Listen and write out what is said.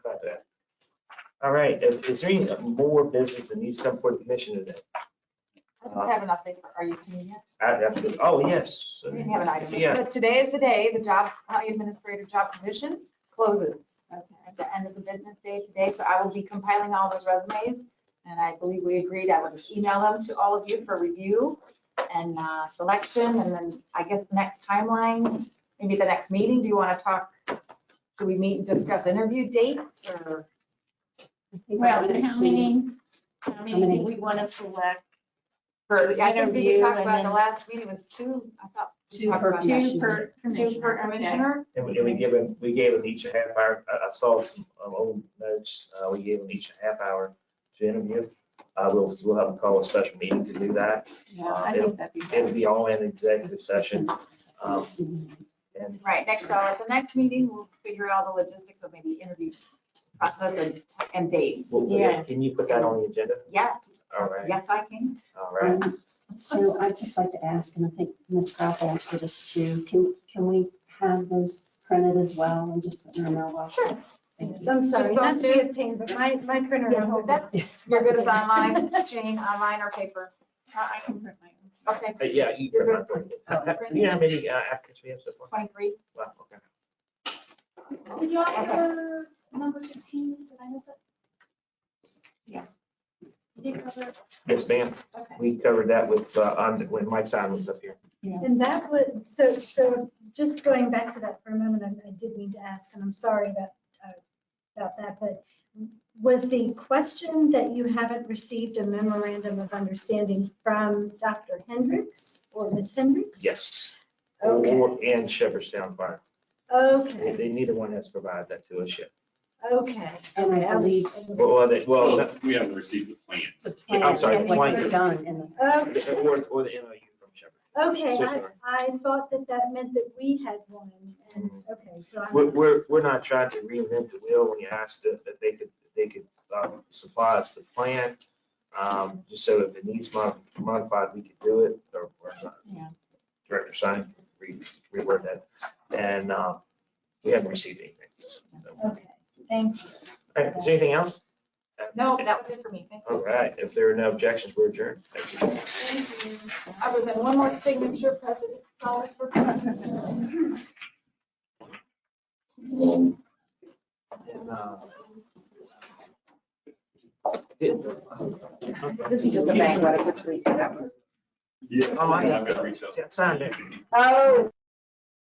All right, is is there any more business that needs to come before the commission today? I just have an update for our youth union. I- absolutely. Oh, yes. We didn't have an item. Yeah. But today is the day the job, county administrator job position closes at the end of the business day today. So I will be compiling all those resumes. And I believe we agreed I would email them to all of you for review and uh, selection. And then I guess the next timeline, maybe the next meeting, do you want to talk? Do we meet and discuss interview dates or? Well, and how many, how How many? many we want to select? For, I think we Interview talked and about in the then- last meeting was two, I thought. we Two talked per about two commissioner. per Two per commissioner. And we, and we gave them, we gave them each a half hour, I, I saw some um, old notes, uh, we gave them each a half hour to interview. Uh, we'll, we'll have them call a special meeting to do that. Uh, Yeah, I think that'd be It'll better. be all in executive session. Um, and Right, next, uh, at the next meeting, we'll figure out all the logistics of maybe interview process and, and dates. we'll- we'll- Yeah. can you put that on the agenda? Yes, All right, yes, I can. all right. So I'd just like to ask, and I think Ms. Kraus asked for this too, can, can we have those printed as well and just put in our mailbox? Sure. Thank you. I'm sorry, sorry, not to not to be a pain, but my, my printer Yeah, went home. That's, you're good as online, Jane, online or paper? I can print my own. Okay, But yeah, you. You're can- good. How- how- You know how many uh, applicants we have so far? twenty-three. Wow, okay. Did y'all hear number sixteen? Did I miss it? Yeah. Did you guys hear? Yes, ma'am. Okay. We covered that with, uh, on, when Mike Simon was up here. And that would, so, so just going back to that for a moment, I I did mean to ask, and I'm sorry about, uh, about that, but was the question that you haven't received a memorandum of understanding from Dr. Hendricks or Ms. Hendricks? Yes. Okay. Or- And Shepherdstown Fire. They, Okay, they- neither one has provided that to us yet. okay. And I Okay, was- Well, Well, they, well, no, We haven't received the plan. The Yeah, I'm plan, sorry, yeah, what blank. you've done in the. Okay. or, or the NOU from Shepherd. Okay, So I, sorry. I thought that that meant that we had one, and, okay, so We're, I'm, we're, we're not trying to reinvent the wheel when you asked that, that they could, they could, um, supply us the plan. Um, just so if it needs mod- modified, we could do it, or, or not. Yeah. Director Simon, re, reword that. And, uh, we haven't received anything. So, All okay, thank you. right, is there anything else? No, that was it for me, thank All right, if there are no objections, we're adjourned. Thank you. you. Other than one more signature, President Solid for. This is just a bank, Yeah. Oh, I got I've got to reach out. It's on there. Oh,